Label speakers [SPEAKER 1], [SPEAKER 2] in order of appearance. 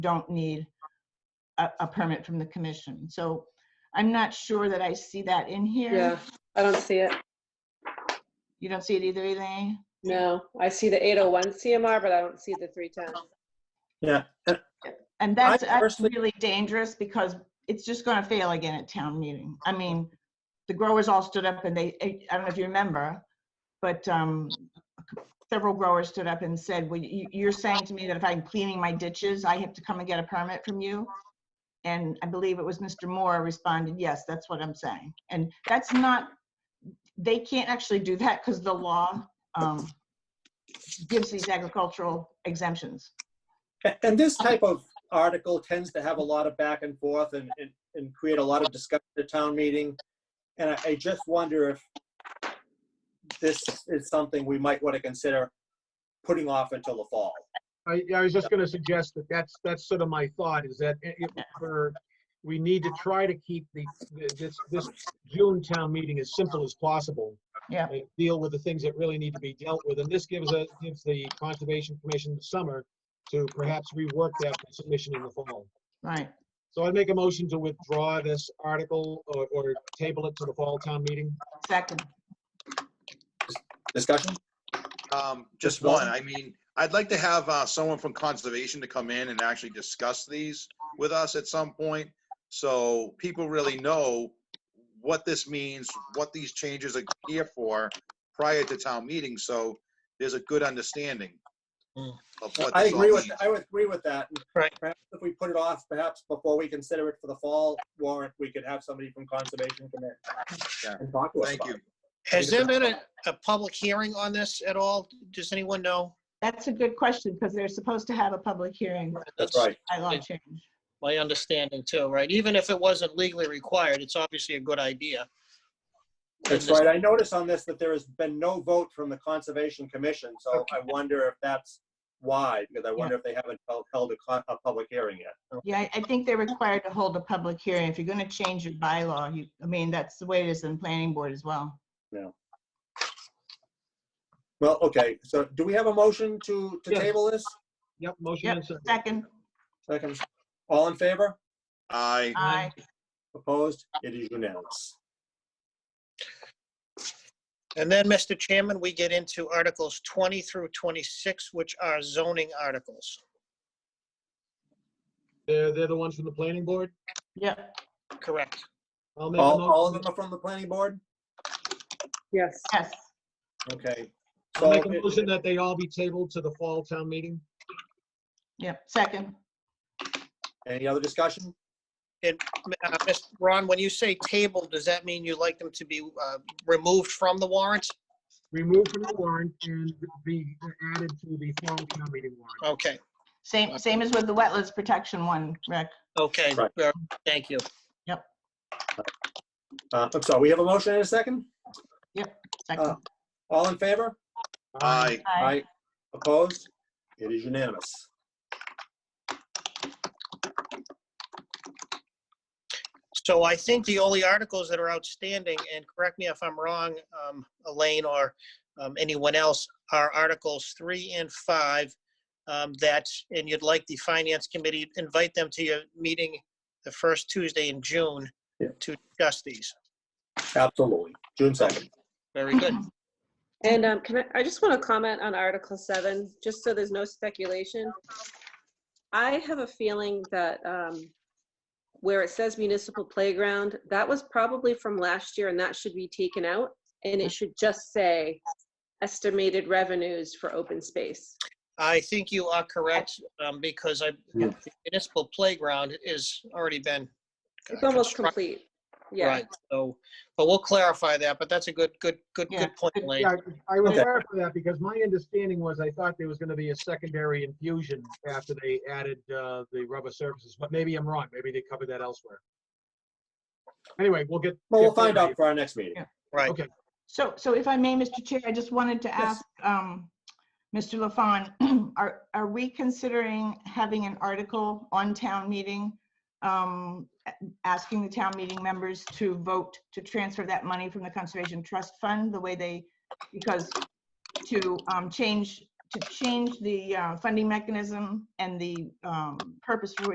[SPEAKER 1] don't need a, a permit from the commission. So I'm not sure that I see that in
[SPEAKER 2] Yeah,
[SPEAKER 1] here.
[SPEAKER 2] I don't see it.
[SPEAKER 1] You don't see it either, Elaine?
[SPEAKER 2] No, I see the 801 CMR, but I don't see the 310.
[SPEAKER 3] Yeah, and
[SPEAKER 1] And that's, that's
[SPEAKER 3] personally-
[SPEAKER 1] really dangerous because it's just gonna fail again at town meeting. I mean, the growers all stood up and they, I don't know if you remember, but um, several growers stood up and said, well, you, you're saying to me that if I'm cleaning my ditches, I have to come and get a permit from you? And I believe it was Mr. Moore responded, yes, that's what I'm saying. And that's not, they can't actually do that because the law um, gives these agricultural exemptions.
[SPEAKER 3] a- and this type of article tends to have a lot of back and forth and, and, and create a lot of discussion at town meeting. And I, I just wonder if this is something we might want to consider putting off until the fall.
[SPEAKER 4] I, I was just gonna suggest that that's, that's sort of my thought, is that it, it- for, we need to try to keep the, this, this June town meeting as simple as possible.
[SPEAKER 1] Yeah.
[SPEAKER 4] And Deal with the things that really need to be dealt with, and this gives us, gives the Conservation Commission the summer to perhaps rework that submission in the fall.
[SPEAKER 1] Right.
[SPEAKER 4] So I'd make a motion to withdraw this article or, or table it to the fall town meeting.
[SPEAKER 1] Second.
[SPEAKER 3] Discussion?
[SPEAKER 5] Um, just
[SPEAKER 3] one?
[SPEAKER 5] one, I mean, I'd like to have, uh, someone from conservation to come in and actually discuss these with us at some point. So people really know what this means, what these changes are here for prior to town meeting, so there's a good understanding.
[SPEAKER 3] Mm.
[SPEAKER 5] of what
[SPEAKER 3] I
[SPEAKER 5] this all
[SPEAKER 3] agree with,
[SPEAKER 5] means.
[SPEAKER 3] I would agree with that.
[SPEAKER 6] Right.
[SPEAKER 3] Perhaps If we put it off, perhaps before we consider it for the fall warrant, we could have somebody from Conservation come in
[SPEAKER 5] Yeah.
[SPEAKER 3] and talk to us
[SPEAKER 5] Thank
[SPEAKER 3] about
[SPEAKER 5] you.
[SPEAKER 3] it.
[SPEAKER 6] Has there been a, a public hearing on this at all? Does anyone know?
[SPEAKER 1] That's a good question because they're supposed to have a public hearing
[SPEAKER 3] That's right.
[SPEAKER 1] by law
[SPEAKER 6] Yeah.
[SPEAKER 1] change.
[SPEAKER 6] My understanding too, right? Even if it wasn't legally required, it's obviously a good idea.
[SPEAKER 3] That's right. I noticed on this that there has been no vote from the Conservation Commission, so I wonder if that's why, because I wonder if they haven't held- held a, con- a public hearing yet.
[SPEAKER 4] Oh.
[SPEAKER 1] Yeah, I- I think they're required to hold a public hearing. If you're going to change your bylaw, you, I mean, that's the way it is in planning board as well.
[SPEAKER 3] Well, okay, so do we have a motion to, to
[SPEAKER 4] Yes.
[SPEAKER 3] table this?
[SPEAKER 4] Yep, motion
[SPEAKER 1] Yep,
[SPEAKER 4] and second.
[SPEAKER 1] second,
[SPEAKER 3] Second, all in favor?
[SPEAKER 5] I,
[SPEAKER 1] aye.
[SPEAKER 3] Opposed? It is unanimous.
[SPEAKER 6] And then, Mr. Chairman, we get into Articles 20 through 26, which are zoning articles.
[SPEAKER 4] They're, they're the ones from the planning board.
[SPEAKER 1] Yep,
[SPEAKER 6] Correct.
[SPEAKER 4] I'll make a
[SPEAKER 3] All, all
[SPEAKER 4] motion,
[SPEAKER 3] of them are from the planning board?
[SPEAKER 2] Yes.
[SPEAKER 1] yes,
[SPEAKER 3] Okay.
[SPEAKER 4] I'll
[SPEAKER 3] So,
[SPEAKER 4] make a motion that they all be tabled to the fall town meeting.
[SPEAKER 1] yep, second.
[SPEAKER 3] any other discussion?
[SPEAKER 6] Uh, Mr. Ron, when you say table, does that mean you'd like them to be uh, removed from the warrant?
[SPEAKER 4] removed from the warrant and be added to the fall town meeting warrant.
[SPEAKER 6] Okay,
[SPEAKER 1] Same, same as with the wetlands protection one, Rick.
[SPEAKER 6] okay,
[SPEAKER 3] Right.
[SPEAKER 6] uh, thank you.
[SPEAKER 3] Uh, I'm sorry, we have a motion and a second?
[SPEAKER 1] Second,
[SPEAKER 3] Uh, All in favor?
[SPEAKER 5] I.
[SPEAKER 1] aye.
[SPEAKER 3] Opposed? It is unanimous.
[SPEAKER 6] So I think the only articles that are outstanding, and correct me if I'm wrong, um, Elaine or um, anyone else, are Articles 3 and 5 um, that, and you'd like the Finance Committee, invite them to your meeting the first Tuesday in June
[SPEAKER 3] Yeah.
[SPEAKER 6] to discuss these.
[SPEAKER 3] Absolutely. June 2nd.
[SPEAKER 6] Very good.
[SPEAKER 2] And um, can I, I just want to comment on Article 7, just so there's no speculation. I have a feeling that um, where it says municipal playground, that was probably from last year and that should be taken out. And it should just say estimated revenues for open space.
[SPEAKER 6] I think you are correct, um, because I,
[SPEAKER 3] Yeah.
[SPEAKER 6] the municipal playground is already been. uh,
[SPEAKER 2] It's almost
[SPEAKER 6] construct-
[SPEAKER 2] complete. Yeah.
[SPEAKER 6] Right, So, but we'll clarify that, but that's a good, good, good,
[SPEAKER 1] Yeah,
[SPEAKER 6] good point, Elaine.
[SPEAKER 4] Yeah, I will
[SPEAKER 3] Okay.
[SPEAKER 4] clarify that because my understanding was I thought there was going to be a secondary infusion after they added uh, the rubber surfaces, but maybe I'm wrong. Maybe they covered that elsewhere. Anyway, we'll get.
[SPEAKER 3] Well, we'll
[SPEAKER 4] get
[SPEAKER 3] find out
[SPEAKER 4] clarity.
[SPEAKER 3] for our next meeting.
[SPEAKER 6] Right,
[SPEAKER 4] Okay,
[SPEAKER 1] So, so if I may, Mr. Chair, I just wanted to ask, um, Mr. LaFawn, are, are we considering having an article on town meeting? Um, a- asking the town meeting members to vote to transfer that money from the Conservation Trust Fund the way they, because to, um, change to change the uh, funding mechanism and the um, purpose for